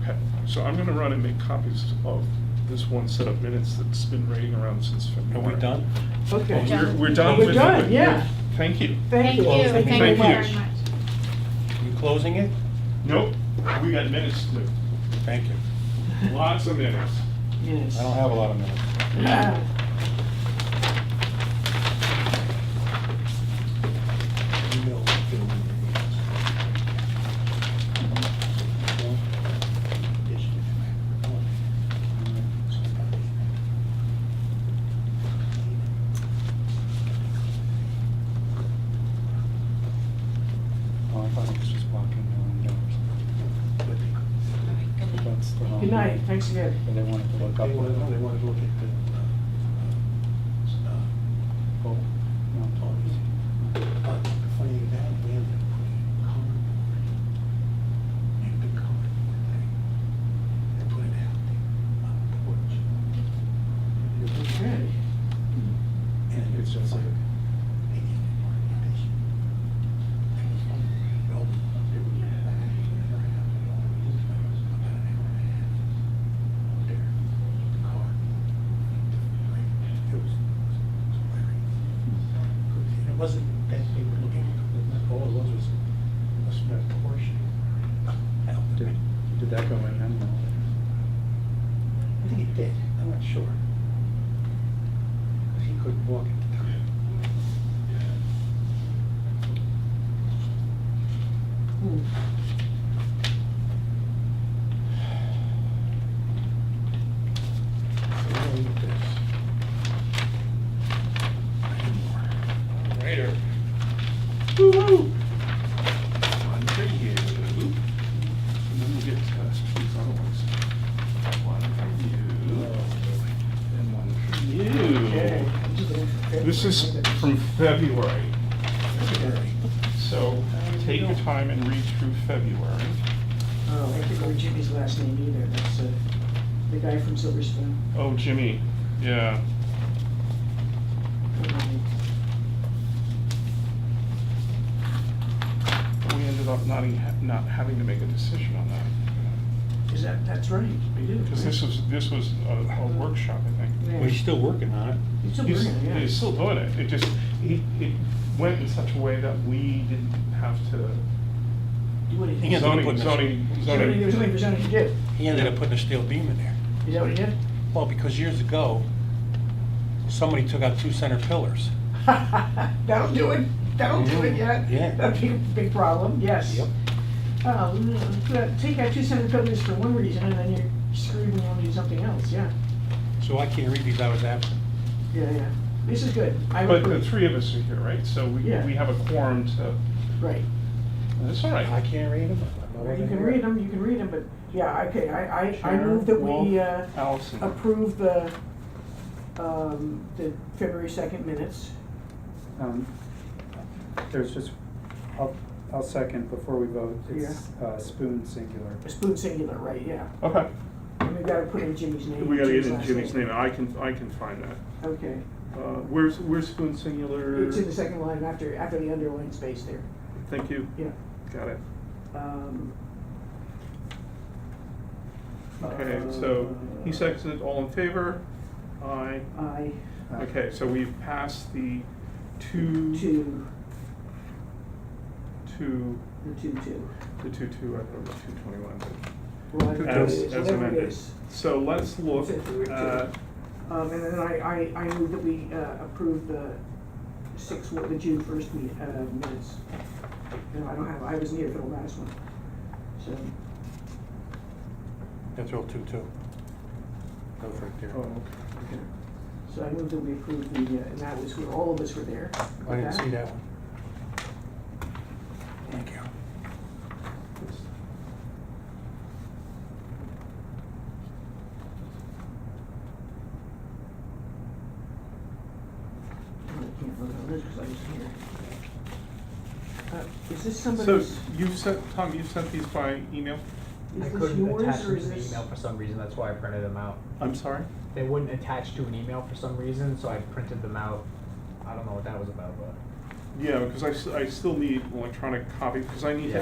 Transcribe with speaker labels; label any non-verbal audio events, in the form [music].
Speaker 1: Okay, so I'm gonna run and make copies of this one set of minutes that's been raining around since
Speaker 2: Are
Speaker 1: February.
Speaker 2: we done?
Speaker 1: Well,
Speaker 3: Yeah.
Speaker 4: Okay.
Speaker 1: We're, we're done
Speaker 3: We're
Speaker 1: with.
Speaker 3: done,
Speaker 1: with-
Speaker 3: yeah.
Speaker 1: Thank you.
Speaker 4: Thank you.
Speaker 3: Thank you very
Speaker 4: Thank you.
Speaker 1: much.
Speaker 2: You closing it?
Speaker 1: Nope, we got minutes to do,
Speaker 2: Thank you.
Speaker 1: lots of
Speaker 3: [laughs]
Speaker 1: minutes.
Speaker 3: Yes. Ah,
Speaker 2: I don't have a lot of minutes.
Speaker 5: Oh, I thought it was just blocking their own doors. But that's the wrong-
Speaker 3: Good night, thanks again.
Speaker 5: But they wanted to look up.
Speaker 6: They wanted, no, they wanted to look at the, uh, uh, oh,
Speaker 5: No.
Speaker 6: oh, easy. But finding that land they put in cardboard, in the cardboard thing, they put it out there on the porch.
Speaker 3: Okay.
Speaker 6: And it's just like, they didn't want to do this. They was like, well, they were back, they never happened, all these things, about an hour and a half. out There, the car. It was, it was hilarious. And It wasn't that they were looking, all it was was a small portion. out there.
Speaker 5: Did did that go in? I don't know.
Speaker 6: I think it did, I'm not sure. Because he couldn't walk at the time.
Speaker 3: Hmm.
Speaker 6: So now we need this. I need more.
Speaker 1: Later.
Speaker 3: Woo-hoo.
Speaker 1: One for you. And then we'll get uh, these other ones. One for you.
Speaker 2: Oh,
Speaker 1: And one for
Speaker 3: Okay.
Speaker 1: you. This is from February,
Speaker 3: Oh,
Speaker 6: February.
Speaker 1: so take your time and read through February.
Speaker 3: Oh, I can't remember Jimmy's last name either, that's uh, the guy from Silver Spoon.
Speaker 1: Oh, Jimmy, yeah. But we ended up not, e- not having to make a decision on that.
Speaker 3: Is that, that's right, we do.
Speaker 1: Because this was, this was a a workshop, I think.
Speaker 3: Yeah.
Speaker 2: Well, he's still working on it.
Speaker 3: It's a
Speaker 1: He's,
Speaker 3: brilliant, yeah.
Speaker 1: he's still doing it, it just, it, it went in such a way that we didn't have to.
Speaker 3: Do what he
Speaker 2: He has
Speaker 3: did.
Speaker 2: to
Speaker 1: Zoning,
Speaker 2: put this-
Speaker 1: zoning,
Speaker 3: Somebody,
Speaker 1: zoning.
Speaker 3: somebody presented he did.
Speaker 2: He ended up putting a steel beam in there.
Speaker 3: Is that what he did? [laughs]
Speaker 2: Well, because years ago, somebody took out two center pillars.
Speaker 3: That'll do it, that'll do it, yeah.
Speaker 2: Yeah.
Speaker 3: That'd be a big problem, yes. Oh, no, uh, take out two center filters for one reason, and then you're screwed when you want to do something else, yeah,
Speaker 2: So I can't read these, I was absent.
Speaker 3: yeah, yeah. This is good, I
Speaker 1: But the
Speaker 3: approve,
Speaker 1: three of us are here, right, so we,
Speaker 3: Yeah.
Speaker 1: we have a quorum to,
Speaker 3: right.
Speaker 1: that's all
Speaker 6: I
Speaker 1: right.
Speaker 6: can't read them. I
Speaker 3: You
Speaker 6: wasn't
Speaker 3: can
Speaker 6: here.
Speaker 3: read them, you can read them, but, yeah, okay, I, I, I
Speaker 1: Sharon,
Speaker 3: move that
Speaker 1: Walt,
Speaker 3: we, uh,
Speaker 1: Allison.
Speaker 3: approve the, um, the February second minutes.
Speaker 5: Um, There's just, I'll, I'll second before we vote. It's uh, spoon singular.
Speaker 3: Spoon singular, right, yeah.
Speaker 1: Okay,
Speaker 3: And we gotta put in Jimmy's name.
Speaker 1: we gotta get in
Speaker 3: last
Speaker 1: Jimmy's name, I can, I can find that.
Speaker 3: Okay.
Speaker 1: Uh, where's, where's Spoon Singular?
Speaker 3: It's in the second line after, after the underline space there,
Speaker 1: Thank you,
Speaker 3: yeah.
Speaker 1: got it.
Speaker 3: Um,
Speaker 1: Okay,
Speaker 3: Uh,
Speaker 1: so he seconded, all in favor? Aye.
Speaker 3: um, I,
Speaker 5: Uh,
Speaker 1: Okay, so we've passed the two,
Speaker 3: two,
Speaker 1: two,
Speaker 3: the two, two.
Speaker 1: the two, two, I thought it was two twenty-one, but.
Speaker 3: Well, I think
Speaker 1: As,
Speaker 3: it is,
Speaker 1: as
Speaker 3: whatever it
Speaker 1: amended.
Speaker 3: is.
Speaker 1: So let's look
Speaker 3: That's it, we're two.
Speaker 1: at,
Speaker 3: Um, and then I, I, I move that we, uh, approve the six, the June first meet, uh, minutes. No, I don't have, I wasn't here for the last one, so,
Speaker 2: That's all two, two. That was right there.
Speaker 1: oh, okay.
Speaker 3: so I move that we approve the, uh, and that was where all of us were there.
Speaker 2: I didn't
Speaker 3: Okay.
Speaker 2: see that one. Thank you.
Speaker 3: I can't vote on this 'cause I wasn't here. Uh, is this
Speaker 1: So
Speaker 3: somebody's,
Speaker 1: you sent, Tom, you sent these by email?
Speaker 3: is
Speaker 7: I
Speaker 3: this
Speaker 7: couldn't attach
Speaker 3: yours or
Speaker 7: them
Speaker 3: is
Speaker 7: to an
Speaker 3: this?
Speaker 7: email for some reason, that's why I printed them out.
Speaker 1: I'm sorry?
Speaker 7: They wouldn't attach to an email for some reason, so I printed them out. I don't know what that was about, but.
Speaker 1: Yeah, because I, s- I still need electronic copy, because I need to